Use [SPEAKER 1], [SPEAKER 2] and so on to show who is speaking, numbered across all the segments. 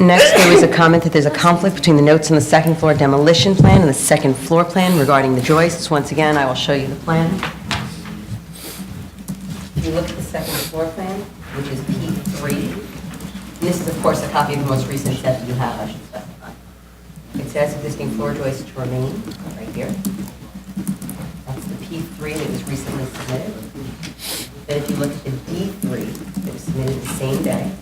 [SPEAKER 1] Next, there was a comment that there's a conflict between the notes on the second floor demolition plan and the second floor plan regarding the joists. Once again, I will show you the plan. If you look at the second floor plan, which is P3, this is, of course, a copy of the most recent set that you have, I should specify. It says existing floor joists to remain, right here. That's the P3 that was recently submitted. Then if you look at the D3 that was submitted the same day,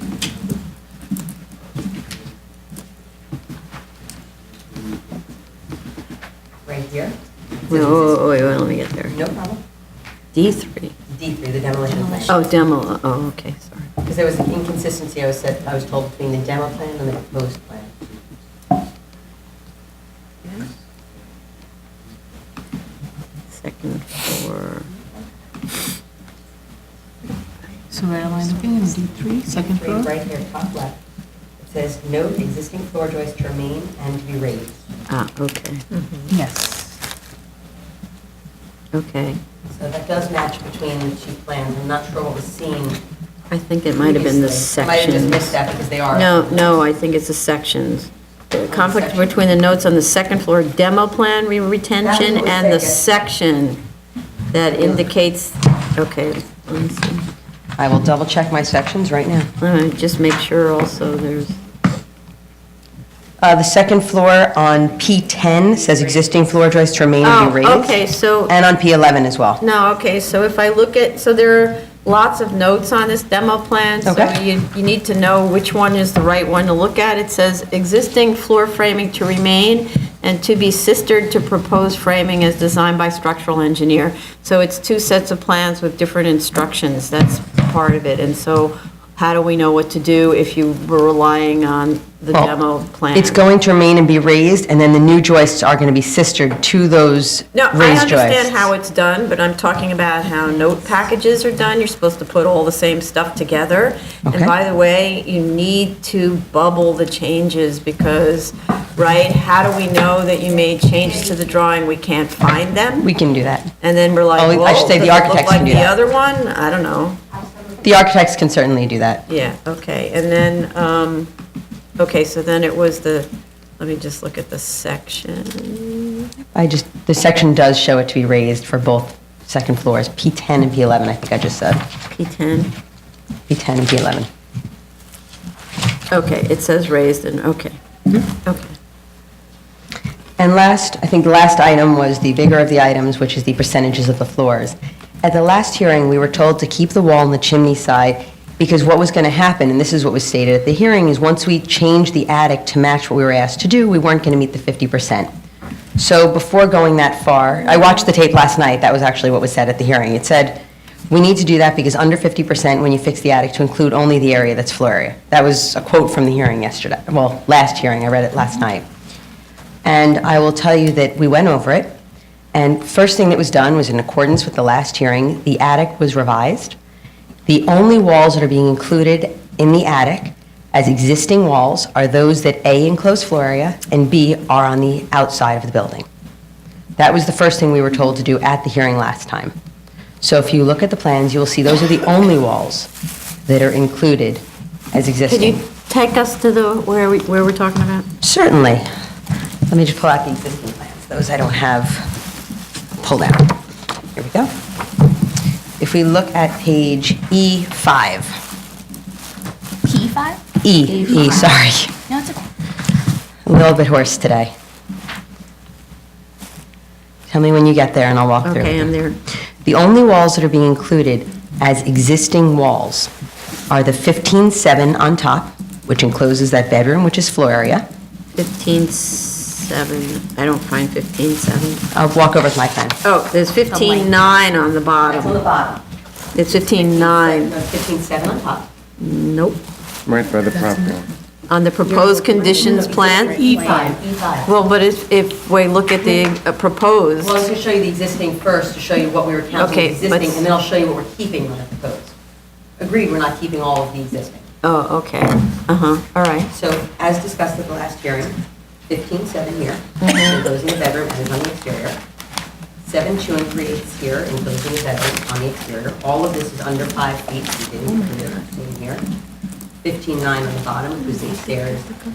[SPEAKER 1] right here.
[SPEAKER 2] Wait, wait, wait, wait, Oh, let me get there.
[SPEAKER 1] No problem.
[SPEAKER 2] D3.
[SPEAKER 1] D3, the demolition plan.
[SPEAKER 2] Oh, demo, oh, okay, sorry.
[SPEAKER 1] Because there was an inconsistency, I was said, I was told between the demo plan and the proposed plan.
[SPEAKER 2] Second floor.
[SPEAKER 3] So red line of being D3, second
[SPEAKER 1] Three,
[SPEAKER 3] floor.
[SPEAKER 1] right here, top left. It says, note existing floor joists to remain and to be raised.
[SPEAKER 2] Ah, okay,
[SPEAKER 3] Yes.
[SPEAKER 2] okay.
[SPEAKER 1] So that does match between the two plans. I'm not sure what was seen.
[SPEAKER 2] I think it might have been the
[SPEAKER 1] previously. I Might have just missed
[SPEAKER 2] sections.
[SPEAKER 1] that because they are.
[SPEAKER 2] No, no, I think it's the sections. The conflict
[SPEAKER 1] section.
[SPEAKER 2] between the notes on the second floor demo plan re-
[SPEAKER 1] That
[SPEAKER 2] retention
[SPEAKER 1] was
[SPEAKER 2] and the
[SPEAKER 1] second.
[SPEAKER 2] section that indicates, okay, let me see.
[SPEAKER 1] I will double check my sections right now.
[SPEAKER 2] All right, just make sure also there's,
[SPEAKER 1] Uh, The second floor on P10 says existing floor joists to remain and
[SPEAKER 2] oh,
[SPEAKER 1] be raised.
[SPEAKER 2] okay, so.
[SPEAKER 1] And on P11 as well.
[SPEAKER 2] No, okay, so if I look at, so there are lots of notes on this demo plan, so
[SPEAKER 1] Okay.
[SPEAKER 2] you, you need to know which one is the right one to look at. It says existing floor framing to remain and to be sistered to proposed framing as designed by structural engineer. So it's two sets of plans with different instructions, that's part of it. And so how do we know what to do if you were relying on the
[SPEAKER 1] Well,
[SPEAKER 2] demo plan?
[SPEAKER 1] It's going to remain and be raised, and then the new joists are going to be sistered to those raised joists.
[SPEAKER 2] No, I understand how it's done, but I'm talking about how note packages are done. You're supposed to put all the same stuff together.
[SPEAKER 1] Okay.
[SPEAKER 2] And by the way, you need to bubble the changes because, right, how do we know that you made changes to the drawing? We can't find them.
[SPEAKER 1] We can do that.
[SPEAKER 2] And then we're like,
[SPEAKER 1] Oh,
[SPEAKER 2] whoa,
[SPEAKER 1] I
[SPEAKER 2] does
[SPEAKER 1] should
[SPEAKER 2] it
[SPEAKER 1] say the
[SPEAKER 2] look
[SPEAKER 1] architects
[SPEAKER 2] like
[SPEAKER 1] can do
[SPEAKER 2] the
[SPEAKER 1] that.
[SPEAKER 2] other one? I don't know.
[SPEAKER 1] The architects can certainly do that.
[SPEAKER 2] Yeah, okay. And then, um, okay, so then it was the, let me just look at the section.
[SPEAKER 1] I just, the section does show it to be raised for both second floors, P10 and P11, I think I just said,
[SPEAKER 2] P10.
[SPEAKER 1] P10 and P11.
[SPEAKER 2] Okay, it says raised and, okay.
[SPEAKER 1] Hmm?
[SPEAKER 2] Okay.
[SPEAKER 1] And last, I think the last item was the bigger of the items, which is the percentages of the floors. At the last hearing, we were told to keep the wall on the chimney side because what was going to happen, and this is what was stated at the hearing, is once we changed the attic to match what we were asked to do, we weren't going to meet the 50%. So before going that far, I watched the tape last night, that was actually what was said at the hearing. It said, "We need to do that because under 50% when you fix the attic to include only the area that's floor area." That was a quote from the hearing yesterday, well, last hearing, I read it last night. And I will tell you that we went over it, and first thing that was done was in accordance with the last hearing, the attic was revised. The only walls that are being included in the attic as existing walls are those that A, enclose floor area, and B, are on the outside of the building. That was the first thing we were told to do at the hearing last time. So if you look at the plans, you will see those are the only walls that are included as
[SPEAKER 2] Could
[SPEAKER 1] existing.
[SPEAKER 2] you take us to the, where we, where we're talking about?
[SPEAKER 1] Certainly. Let me just pull out the existing plans, those I don't have pulled out. Here we go. If we look at page E E5,
[SPEAKER 4] P5?
[SPEAKER 1] E, E, sorry,
[SPEAKER 4] No, it's okay.
[SPEAKER 1] a little bit hoarse today. Tell me when you get there and I'll walk through.
[SPEAKER 2] Okay, I'm there.
[SPEAKER 1] The only walls that are being included as existing walls are the 15-7 on top, which encloses that bedroom, which is floor area.
[SPEAKER 2] 15.7, I don't find 15.7.
[SPEAKER 1] I'll walk over with my plan.
[SPEAKER 2] Oh, there's 15.9 on the bottom.
[SPEAKER 1] the bottom.
[SPEAKER 2] It's 15.9,
[SPEAKER 1] 15-7 on top.
[SPEAKER 2] nope.
[SPEAKER 5] Right by the property line.
[SPEAKER 2] On the proposed conditions plan?
[SPEAKER 1] E5.
[SPEAKER 2] E
[SPEAKER 1] E5.
[SPEAKER 2] Well, but if, if we look at the uh,
[SPEAKER 1] Well, I was
[SPEAKER 2] proposed,
[SPEAKER 1] going to show you the existing first, to show you what we were counting
[SPEAKER 2] Okay,
[SPEAKER 1] as existing,
[SPEAKER 2] let's-
[SPEAKER 1] and then I'll show you what we're keeping on the proposed. Agreed, we're not keeping all of the existing.
[SPEAKER 2] oh, okay, uh-huh, all right.
[SPEAKER 1] So as discussed at the last hearing, 15-7 here,
[SPEAKER 2] Mm-hmm.
[SPEAKER 1] enclosing the bedroom and is on the exterior. 7-2 and 3 eighths here, enclosing the bedroom on the exterior. All of this is under 5 feet, we didn't include it in here. 15.9 on the bottom, which was the stairs,